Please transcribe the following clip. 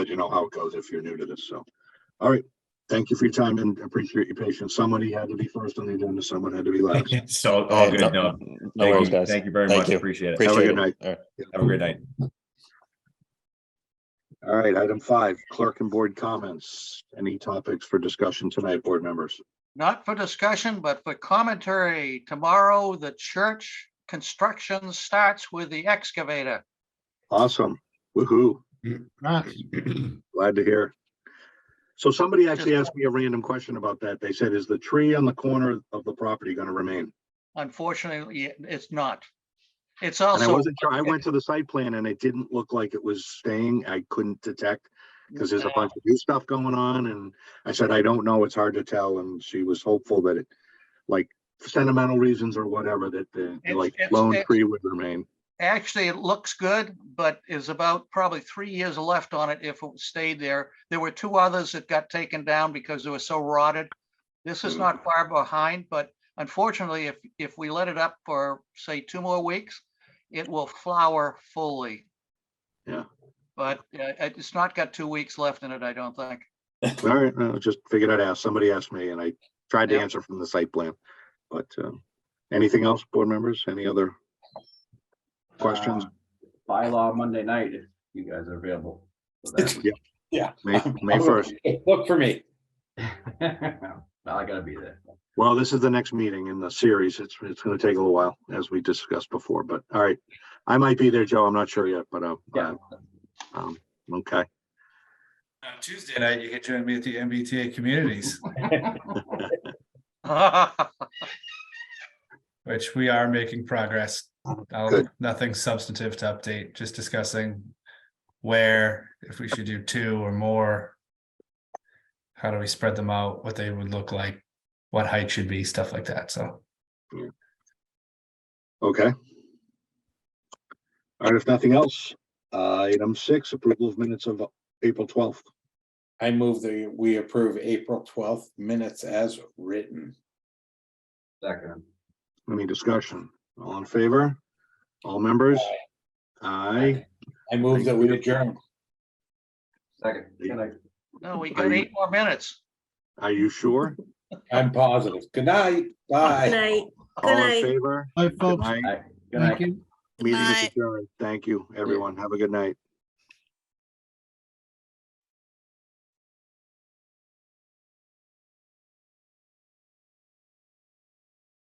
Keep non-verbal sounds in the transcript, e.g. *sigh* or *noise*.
but you know how it goes if you're new to this, so. All right, thank you for your time and appreciate your patience. Somebody had to be first on the agenda, someone had to be last. *laughs* So, all Yeah, good, no. Oh, No Thank worries, you, guys. thank you very Thank much, you. appreciate it. Appreciate good it. night. All right. Have a great night. *laughs* All right, item five, clerk and board comments. Any topics for discussion tonight, board members? Not for discussion, but for commentary. Tomorrow, the church construction starts with the excavator. Awesome, woohoo, *clears throat* glad to hear. So somebody actually asked me a random question about that. They said, is the tree on the corner of the property gonna remain? Unfortunately, it's not. It's And I also. wasn't sure, I went to the site plan and it didn't look like it was staying, I couldn't detect. because there's a uh, bunch of new stuff going on, and I said, I don't know, it's hard to tell, and she was hopeful that it, like, for sentimental reasons or whatever, that the, It's- like, it's- lone it's- tree would remain. Actually, it looks good, but is about probably three years left on it if it stayed there. There were two others that got taken down because they were so rotted. This is Mm. not far behind, but unfortunately, if, if we let it up for, say, two more weeks, it will flower fully. Yeah. But uh, it- it's not got two weeks left in it, I *laughs* don't think. All right, I just figured I'd ask, somebody asked me, and I tried to Yeah. answer from the site plan, but, um, anything else, board members, any other questions? Uh, Bylaw Monday night, if you guys are available. for that. *laughs* Yeah. May, May first, Look for me. Well, I gotta be there. well, this is the next meeting in the series, it's, it's gonna take a little while, as we discussed before, but, all right. I might be there, Joe, I'm not sure yet, but, uh, Yeah, um, okay. On Tuesday night, you can join me at the MBTA Communities, which we are making progress. I'll- Good. Nothing substantive to update, just discussing where, if we should do two or more. How do we spread them out, what they would look like, what height should be, stuff like that, so. Okay. All right, if nothing else, uh, item six, approval of minutes of April twelfth. I move that we approve April twelfth minutes as written. second. Any discussion? All in favor? All members? Aye. I move that we adjourn. Second. Good night. No, we Are got you- eight more minutes. Are you sure? I'm positive. Good night. Good Bye. night. All in night. favor? Hi, Good folks. night. Good night. Thank you. Meeting is Bye. adjourned. Thank you, everyone. Have a good night.